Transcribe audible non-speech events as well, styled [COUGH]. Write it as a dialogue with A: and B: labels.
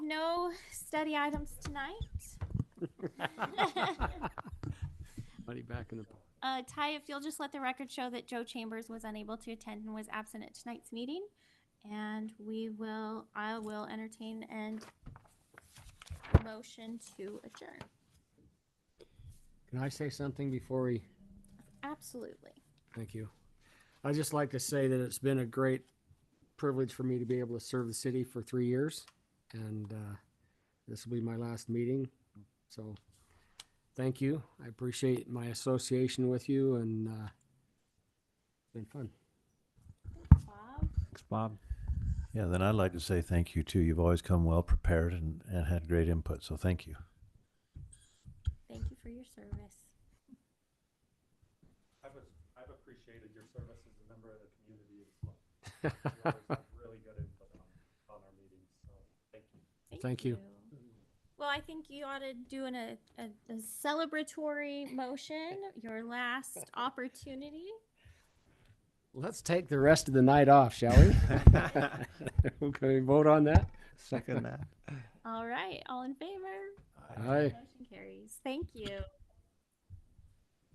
A: study items tonight.
B: [LAUGHS] Money back in the.
A: Uh, Ty, if you'll just let the record show that Joe Chambers was unable to attend and was absent at tonight's meeting. And we will, I will entertain and motion to adjourn.
B: Can I say something before we?
A: Absolutely.
B: Thank you. I'd just like to say that it's been a great privilege for me to be able to serve the city for three years. And uh, this will be my last meeting. So thank you. I appreciate my association with you and uh, it's been fun.
A: Bob?
C: Thanks, Bob.
D: Yeah, then I'd like to say thank you too. You've always come well prepared and, and had great input, so thank you.
A: Thank you for your service.
E: I've, a- I've appreciated your service as a member of the community as well. You always have really good input on, on our meetings, so thank you.
B: Thank you.
A: Well, I think you ought to do an, a, a a celebratory motion, your last opportunity.
B: Let's take the rest of the night off, shall we? [LAUGHS] Can we vote on that?
C: Second that.
A: All right, all in favor?
B: Aye.
A: Motion carries. Thank you.